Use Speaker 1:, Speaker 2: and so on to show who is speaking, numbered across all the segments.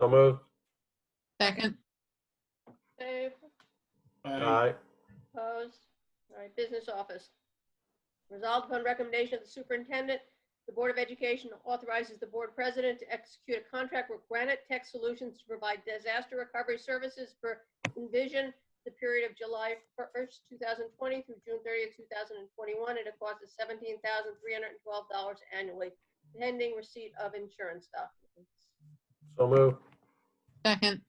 Speaker 1: So moved.
Speaker 2: Second,
Speaker 3: Dave,
Speaker 1: Aye.
Speaker 3: opposed? All right, business office. Resolved upon recommendation of the superintendent, the Board of Education authorizes the board president to execute a contract with Granite Tech Solutions to provide disaster recovery services for Envision the period of July 1st, 2020 through June 30th, 2021, at a cost of $17,312 annually, pending receipt of insurance documents.
Speaker 1: So moved.
Speaker 2: second,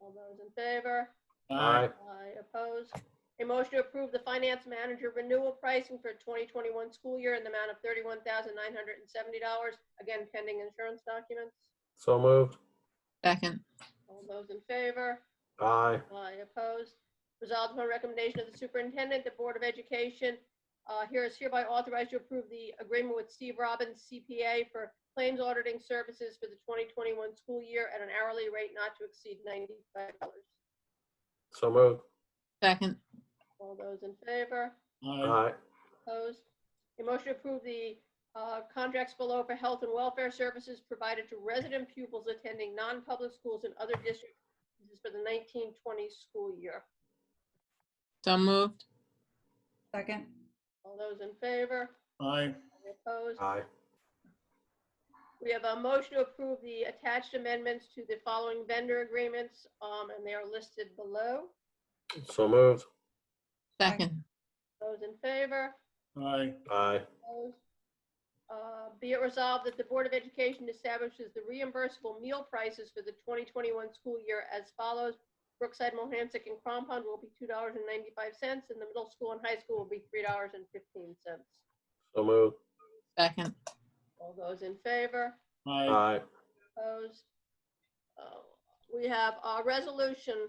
Speaker 3: All those in favor?
Speaker 1: Aye.
Speaker 3: Aye, opposed. A motion to approve the finance manager renewal pricing for 2021 school year in the amount of $31,970, again pending insurance documents.
Speaker 1: So moved.
Speaker 2: second,
Speaker 3: All those in favor?
Speaker 1: Aye.
Speaker 3: Aye, opposed. Resolved upon recommendation of the superintendent, the Board of Education uh, here is hereby authorized to approve the agreement with Steve Robbins CPA for claims auditing services for the 2021 school year at an hourly rate not to exceed $95.
Speaker 1: So moved.
Speaker 2: second,
Speaker 3: All those in favor?
Speaker 1: Aye.
Speaker 3: Opposed? A motion to approve the uh, contracts below for health and welfare services provided to resident pupils attending non-public schools in other districts. This is for the 1920 school year.
Speaker 2: so moved,
Speaker 4: Second.
Speaker 3: All those in favor?
Speaker 4: Aye.
Speaker 3: Opposed?
Speaker 1: Aye.
Speaker 3: We have a motion to approve the attached amendments to the following vendor agreements, um, and they are listed below.
Speaker 1: So moved.
Speaker 2: second,
Speaker 3: Those in favor?
Speaker 4: Aye.
Speaker 1: Aye.
Speaker 3: Opposed? Uh, Be it resolved that the Board of Education establishes the reimbursable meal prices for the 2021 school year as follows. Brookside, Mohamsic, and Crampon will be $2.95, and the middle school and high school will be $3.15.
Speaker 1: So moved.
Speaker 2: second,
Speaker 3: All those in favor?
Speaker 4: Aye.
Speaker 1: Aye.
Speaker 3: Opposed? Uh, We have a resolution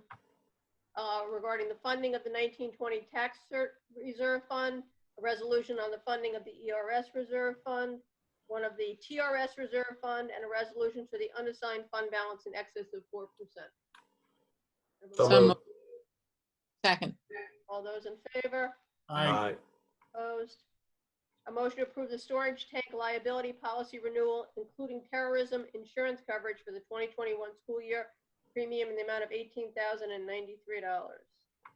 Speaker 3: uh, regarding the funding of the 1920 Tax Cert Reserve Fund, a resolution on the funding of the ERS Reserve Fund, one of the TRS Reserve Fund, and a resolution for the unassigned fund balance in excess of 4%.
Speaker 1: So
Speaker 2: So
Speaker 1: moved.
Speaker 2: second,
Speaker 3: All those in favor?
Speaker 4: Aye.
Speaker 1: Aye.
Speaker 3: Opposed? A motion to approve the storage tank liability policy renewal, including terrorism insurance coverage for the 2021 school year, premium in the amount of $18,093. All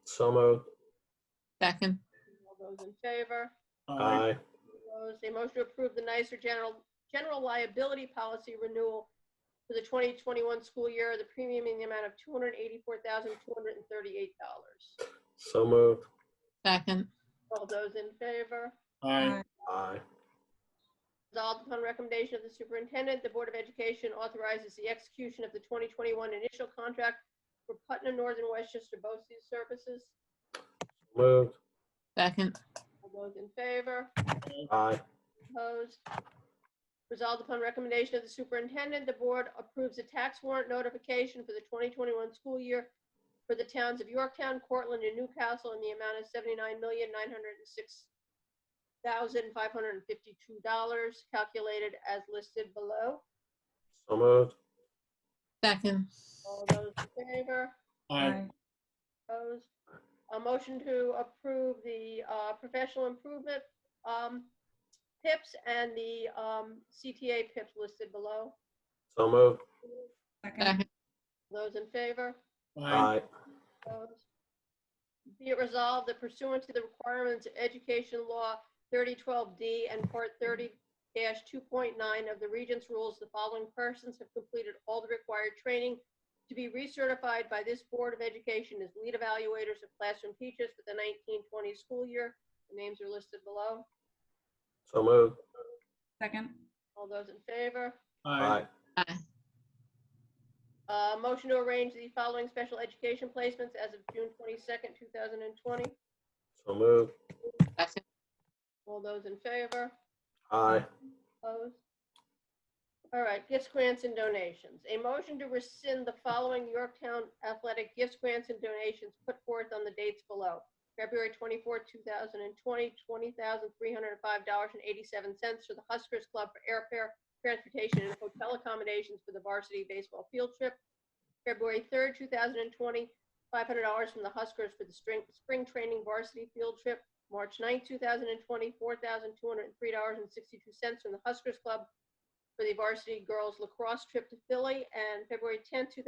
Speaker 1: So moved.
Speaker 2: second,
Speaker 3: those in favor?
Speaker 1: Aye.
Speaker 3: Opposed? A motion to approve the nicer general, general liability policy renewal for the 2021 school year, the premium in the amount of $284,238.
Speaker 1: So moved.
Speaker 2: second,
Speaker 3: All those in favor?
Speaker 4: Aye.
Speaker 1: Aye.
Speaker 3: Resolved upon recommendation of the superintendent, the Board of Education authorizes the execution of the 2021 initial contract for Putnam Northern Westchester BOCES services.
Speaker 1: Moved.
Speaker 2: second,
Speaker 3: All those in favor?
Speaker 1: Aye.
Speaker 3: Opposed? Resolved upon recommendation of the superintendent, the board approves a tax warrant notification for the 2021 school year for the towns of Yorktown, Cortland, and Newcastle in the amount of $79,906,552, calculated as listed below.
Speaker 1: So moved.
Speaker 2: second,
Speaker 3: All those in favor?
Speaker 4: Aye.
Speaker 3: Opposed? A motion to approve the uh, professional improvement um, PIPs and the um, CTA PIPs listed below.
Speaker 1: So moved.
Speaker 4: Second.
Speaker 2: second,
Speaker 3: Those in favor?
Speaker 1: Aye.
Speaker 3: Opposed? Be it resolved that pursuant to the requirements of Education Law 3012D and Part 30-2.9 of the Regents Rules, the following persons have completed all the required training to be recertified by this Board of Education as lead evaluators of classroom teachers for the 1920 school year. The names are listed below.
Speaker 1: So moved.
Speaker 4: Second.
Speaker 3: All those in favor?
Speaker 1: Aye.
Speaker 2: aye,
Speaker 3: Uh, Motion to arrange the following special education placements as of June 22nd, 2020.
Speaker 1: So moved.
Speaker 2: second,
Speaker 3: All those in favor?
Speaker 1: Aye.
Speaker 3: Opposed? All right, gifts, grants, and donations. A motion to rescind the following Yorktown athletic gifts, grants, and donations put forth on the dates below. February 24, 2020, $20,305.87 for the Huskers Club for airfare, transportation, and hotel accommodations for the varsity baseball field trip. February 3, 2020, $500 from the Huskers for the spring, spring training varsity field trip. March 9, 2020, $4,203.62 from the Huskers Club for the varsity girls lacrosse trip to Philly, and February 10, 2020.